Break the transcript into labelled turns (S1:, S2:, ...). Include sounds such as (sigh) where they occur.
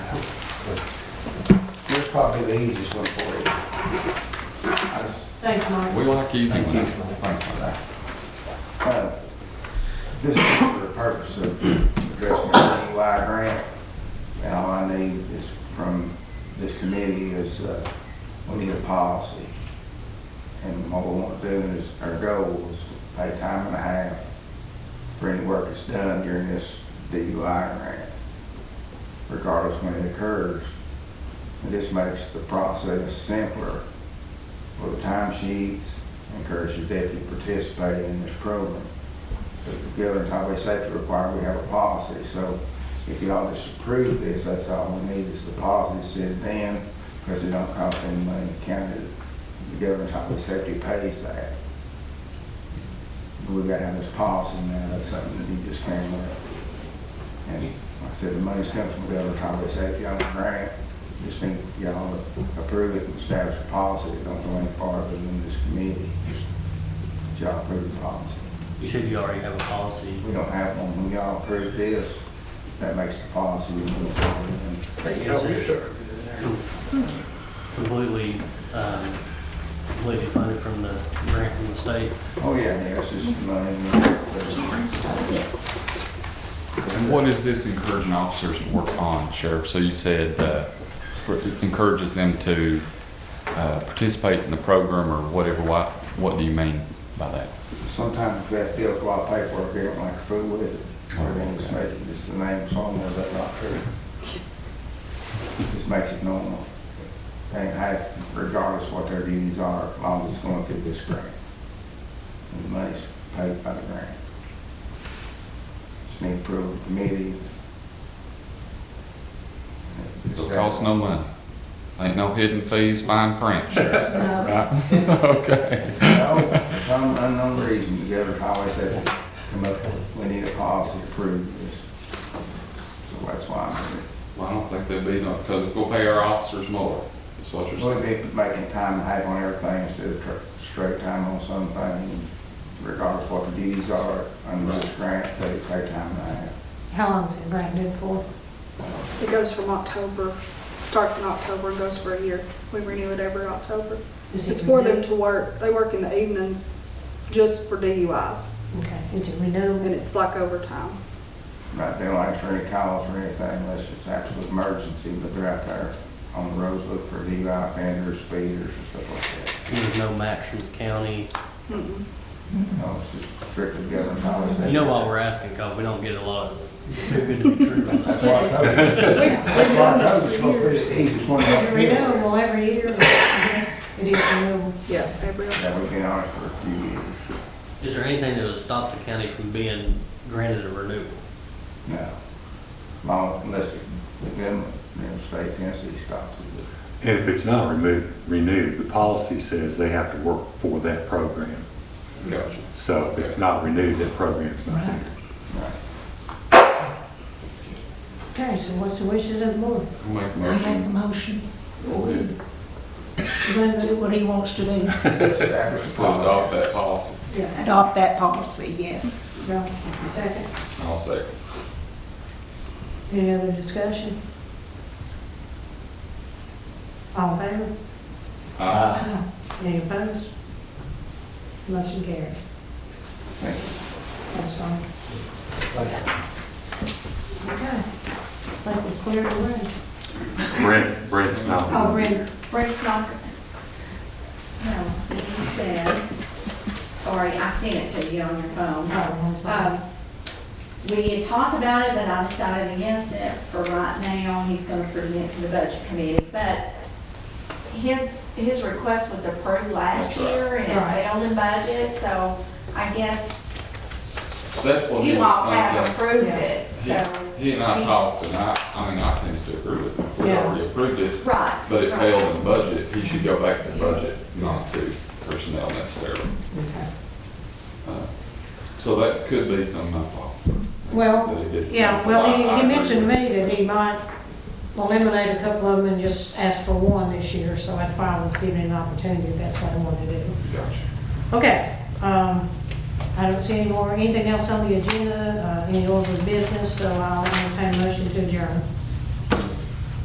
S1: probably the easiest one for you. I just-
S2: Thanks, Mike.
S3: We like easy
S1: Thank
S3: ones.
S1: you.
S3: Thanks, man.
S1: Uh, This is for the purpose of addressing the DUI grant. And all I need is from this committee is, uh, we need a policy. And what we want to do is, our goal is to pay time and a half for any work that's done during this DUI grant, regardless when it occurs. And this makes the process simpler for the time sheets, encourage the deputy to participate in this program. The governor's highway safety requirement, we have a policy, so if y'all just approve this, that's all we need is the policy to sit down, because it don't cost any money to county. The governor's highway safety pays that. But we gotta have this policy now, that's something that you just came up. And like I said, the money's coming from governor's highway safety on the grant, just need y'all to approve it and establish a policy, don't go any farther than this committee, just y'all approve the policy.
S4: You said you already have a policy.
S1: We don't have one, when y'all approve this, that makes the policy, we can sign it.
S4: Is it Completely, um, completely funded from the grant from the state.
S1: Oh, yeah, yeah, it's just money. Sorry.
S3: And what is this encouraging officers to work on, Sheriff? So you said, uh, for- it encourages them to, uh, participate in the program or whatever, what, what do you mean by that?
S1: Sometimes if that deals with a lot of paperwork, they don't like to fool with it, or they just make it just the names on there, that's not true. Just makes it normal. They ain't have, regardless what their duties are, as long as it's going through this grant. And the money's paid by the grant. Just need approval of the committee.
S3: It'll cost no money. Ain't no hidden fees, fine print, Sheriff,
S2: No,
S3: right? (laughs) Okay.
S1: No, for some unknown reason, the governor's highway said, come up, with- we need a policy to approve this. So that's why I'm here.
S3: Well, I don't think there'd be no, because it's gonna pay our officers more, is what you're
S1: We'll
S3: saying.
S1: be making time and half on everything instead of tr- straight time on something, regardless what the duties are under this grant, they pay time and a half.
S2: how long's it grant good for?
S5: It goes from October, starts in October and goes for a year. We renew it every October.
S2: Is it
S5: It's for them
S2: renewed?
S5: to work, they work in the evenings just for DUIs,
S2: Okay, is it
S5: and
S2: renewed?
S5: it's like overtime.
S1: Right, they don't answer any calls or anything unless it's absolute emergency, but they're out there on the roads looking for DUI offenders, speeders and stuff like that.
S4: There's no match from the county.
S5: Mm-mm.
S1: No, it's just strictly governor's highway safety.
S4: You know why we're asking, because we don't get a lot. It's Too good to be true from the
S1: That's why I
S4: state.
S1: told you. That's why I told you, it's gonna
S5: We've we've done this for
S1: be
S5: years.
S1: the easiest one.
S2: Is it renewable every year? Yes, it is renewable.
S5: Yeah, every,
S1: Yeah, we've been on it for a few years.
S4: Is there anything that would stop the county from being granted a renewal?
S1: No. Long, unless the government, you know, state Tennessee stops it.
S6: And if it's not removed, renewed, the policy says they have to work for that program.
S3: Gotcha.
S6: So if it's not renewed, that program's not there.
S1: Right.
S2: Okay, so what's the wishes of the board?
S3: I'll Make a
S7: I make a
S3: motion.
S7: motion.
S3: Go ahead.
S7: Glenn do what he wants to do.
S1: Establish a
S3: To adopt
S1: policy.
S3: that policy.
S2: Yeah.
S7: Adopt that policy, yes.
S2: Right, second.
S3: I'll second.
S2: Any other discussion? All in favor?
S3: Aye.
S2: Any opposed? Motion carries.
S1: Thank you.
S2: That's all. Okay. Like we cleared the room.
S6: Brent, Brent's not.
S2: Oh, Brent,
S8: Brett's not, no, he said, sorry, I sent it to you on your phone.
S2: oh, I'm sorry.
S8: Um, We had talked about it, but I decided against it for right now. He's going to present to the budget committee. But his, his request was approved last
S3: That's right.
S8: year and
S2: Right.
S8: it failed in budget, so I guess
S3: That's what he
S8: you all have
S3: was
S8: approved
S2: Yeah.
S8: it, so.
S3: thinking. He and I talked, and I, I mean, I tend to agree with him. We
S2: Yeah.
S3: already approved it,
S8: Right.
S3: but it
S8: right.
S3: failed in budget. He should go back to budget, not to personnel necessarily.
S2: Okay.
S3: Uh, So that could be some of my fault.
S2: Well,
S3: That he did.
S2: Yeah, well,
S3: I- I
S2: he, he
S3: agree
S2: mentioned to
S3: with
S2: me
S3: you.
S2: that he might eliminate a couple of them and just ask for one this year, so that's why I was giving him an opportunity, if that's what I wanted to do.
S3: Gotcha.
S2: Okay, um, I don't see any more, anything else on the agenda, uh, any other business, so I'll entertain a motion to adjourn.